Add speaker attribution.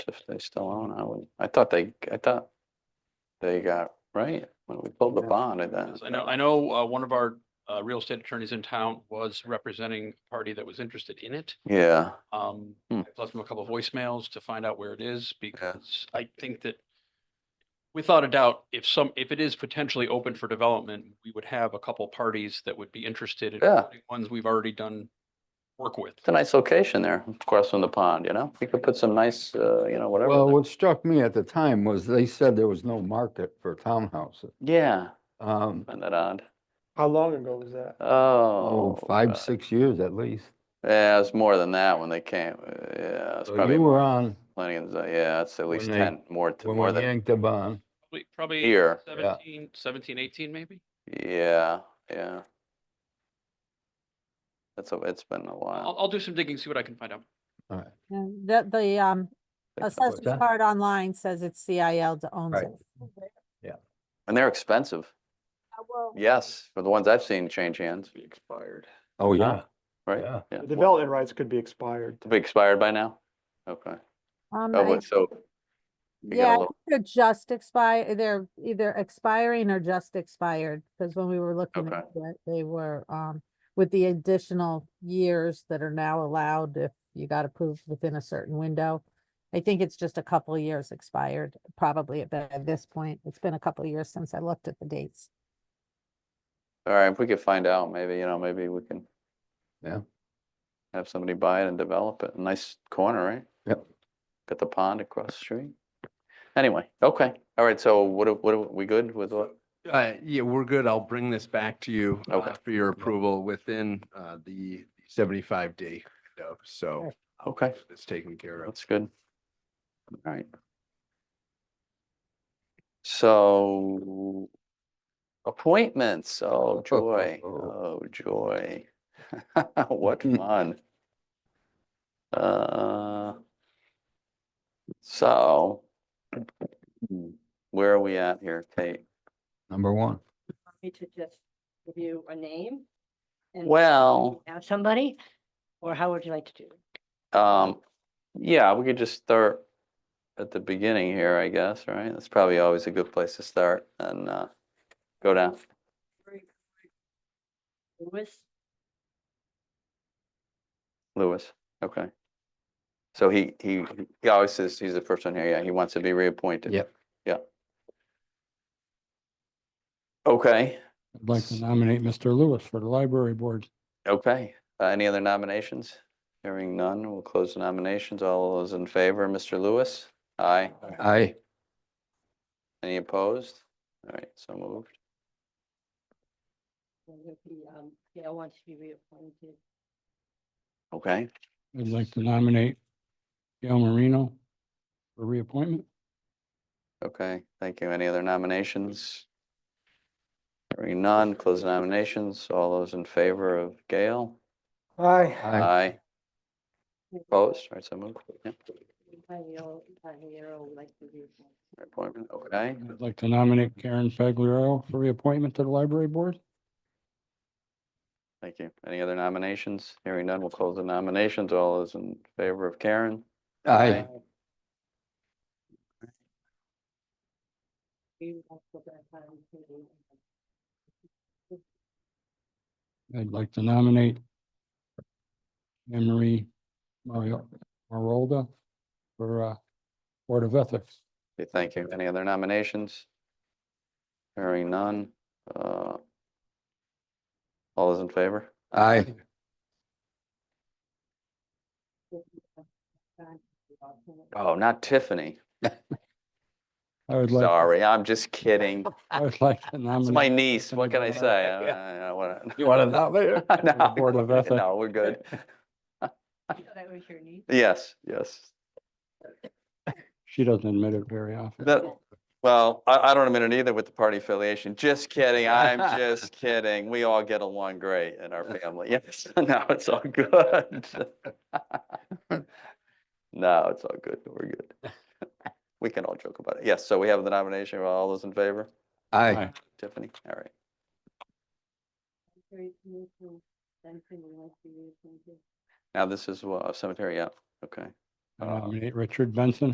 Speaker 1: If they still own, I would, I thought they, I thought they got, right, when we pulled the
Speaker 2: Yeah.
Speaker 1: bond and that.
Speaker 3: I know, I know, uh, one of our, uh, real estate attorneys in town was representing a party that was interested in it.
Speaker 1: Yeah,
Speaker 3: Um,
Speaker 1: Hmm.
Speaker 3: I've left him a couple of voicemails to find out where it is because I think that without a doubt, if some, if it is potentially open for development, we would have a couple parties that would be interested. in
Speaker 1: Yeah.
Speaker 3: including Ones we've already done work with.
Speaker 1: it's a nice location there, across from the pond, you know, we could put some nice, uh, you know, whatever.
Speaker 2: Well,
Speaker 1: there.
Speaker 2: what struck me at the time was they said there was no market for townhouses.
Speaker 1: Yeah,
Speaker 2: Um,
Speaker 1: isn't that odd?
Speaker 4: How long ago was that?
Speaker 1: Oh.
Speaker 2: oh, five,
Speaker 1: God.
Speaker 2: six years at least.
Speaker 1: Yeah, it's more than that when they came, uh, yeah, it's
Speaker 2: So
Speaker 1: probably
Speaker 2: You were on
Speaker 1: plenty, of the- yeah, it's at least
Speaker 2: they-
Speaker 1: ten, more, t-
Speaker 2: when
Speaker 1: more
Speaker 2: we
Speaker 1: than,
Speaker 2: yanked the bond.
Speaker 3: Probably- Probably
Speaker 1: Here.
Speaker 2: Yeah.
Speaker 3: 17, 17, 18 maybe?
Speaker 1: yeah, yeah. That's, a. it's been a
Speaker 3: I'll,
Speaker 4: Oh.
Speaker 1: while.
Speaker 3: I'll do some digging, see what I can find out.
Speaker 5: Yeah, The, the, um,
Speaker 1: Think about
Speaker 5: assessor's
Speaker 2: that.
Speaker 5: card online says it's CIL that owns
Speaker 2: Right.
Speaker 5: it.
Speaker 1: And they're expensive,
Speaker 5: Uh,
Speaker 1: yes, for the ones I've seen change hands. Expired.
Speaker 2: Oh, yeah,
Speaker 1: Right?
Speaker 2: yeah.
Speaker 1: Yeah.
Speaker 4: The development rights could be expired.
Speaker 1: Be expired by now? Okay.
Speaker 5: Um,
Speaker 1: Oh,
Speaker 5: I-
Speaker 1: wait, so, get a
Speaker 5: Yeah, I
Speaker 1: little-
Speaker 5: think they're just expire, they're either expiring or just expired, because when we were looking
Speaker 1: Okay.
Speaker 5: at it, they were, um, with the additional years that are now allowed if you got approved within a certain window. I think it's just a couple of years expired, probably at, the- at this point. It's been a couple of years since I looked at the dates.
Speaker 1: all right, if we could find out, maybe, you know, maybe we can.
Speaker 2: Yeah.
Speaker 1: Have somebody buy it and develop it. Nice corner, right?
Speaker 2: Yep.
Speaker 1: Got the pond across the street. Anyway, okay, all right, so what, do- what, do- we good with what?
Speaker 6: Uh, yeah, we're good. I'll bring this back to you uh,
Speaker 1: Okay.
Speaker 6: for your approval within, uh, the seventy-five day window. So
Speaker 1: Okay,
Speaker 6: it's taken care of.
Speaker 1: that's good. All right. So. Appointments, oh joy, oh joy. What fun. Uh. So. Where are we at here, Kate?
Speaker 2: Number one.
Speaker 7: me to just give you a name? and
Speaker 1: Well.
Speaker 7: Ask somebody, or how would you like to do? it?
Speaker 1: Um, yeah, we could just start at the beginning here, I guess, right? That's probably always a good place to start and, uh, go down.
Speaker 7: Louis,
Speaker 1: Lewis, okay. So he, he, he always says he's the first one here. Yeah, he wants to be reappointed.
Speaker 2: Yep.
Speaker 1: Yeah. Okay,
Speaker 8: I'd like to nominate Mr. Lewis for the library board.
Speaker 1: okay. Uh, any other nominations? Hearing none, we'll close the nominations. All those in favor, Mr. Lewis? Aye.
Speaker 2: I,
Speaker 1: Any opposed? All right, so moved.
Speaker 7: or would be, um, Gail wants to be reappointed.
Speaker 1: Okay,
Speaker 8: I'd like to nominate Gail Marino for reappointment.
Speaker 1: Okay, thank you. Any other nominations? Hearing none, close the nominations. All those in favor of Gail?
Speaker 4: Aye.
Speaker 2: I,
Speaker 1: Aye.
Speaker 7: Maybe
Speaker 1: Opposed? All right, so moved. Yep,
Speaker 7: Javier- Javier would like to be appointed.
Speaker 1: appointment, okay.
Speaker 8: I'd like to nominate Karen Fagliaro for reappointment to the library board.
Speaker 1: Thank you. Any other nominations? Hearing none, we'll close the nominations. All those in favor of Karen?
Speaker 2: I,
Speaker 7: We would like to go back on to the-
Speaker 8: I'd like to nominate Anne Marie Mario Marolda for uh, Board of Ethics.
Speaker 1: Okay, Thank you. Any other nominations? Hearing none. uh, All those in favor?
Speaker 2: I,
Speaker 1: Oh, not Tiffany.
Speaker 8: I would like,
Speaker 1: Sorry, I'm just kidding.
Speaker 8: I would like to
Speaker 1: It's my
Speaker 8: nominate,
Speaker 1: niece. What can I
Speaker 8: Yeah.
Speaker 1: say? I- I- I wanna-
Speaker 2: you want to know later?
Speaker 1: No,
Speaker 8: Board of Ethics.
Speaker 1: No, we're good.
Speaker 7: That was your need.
Speaker 1: Yes, yes.
Speaker 8: she doesn't admit it very often.
Speaker 1: That, well, I, I don't admit it either with the party affiliation. Just kidding. I'm just kidding. We all get along great in our family. Yes, no, it's all good. No, it's all good. We're good. We can all joke about it. Yes, so we have the nomination. Are All those in favor?
Speaker 2: I,
Speaker 1: Tiffany? All right.
Speaker 7: Very smooth, so Duncan would like to be reappointed.
Speaker 1: Now this is uh, cemetery, yeah, okay.
Speaker 8: I Nominate Richard Benson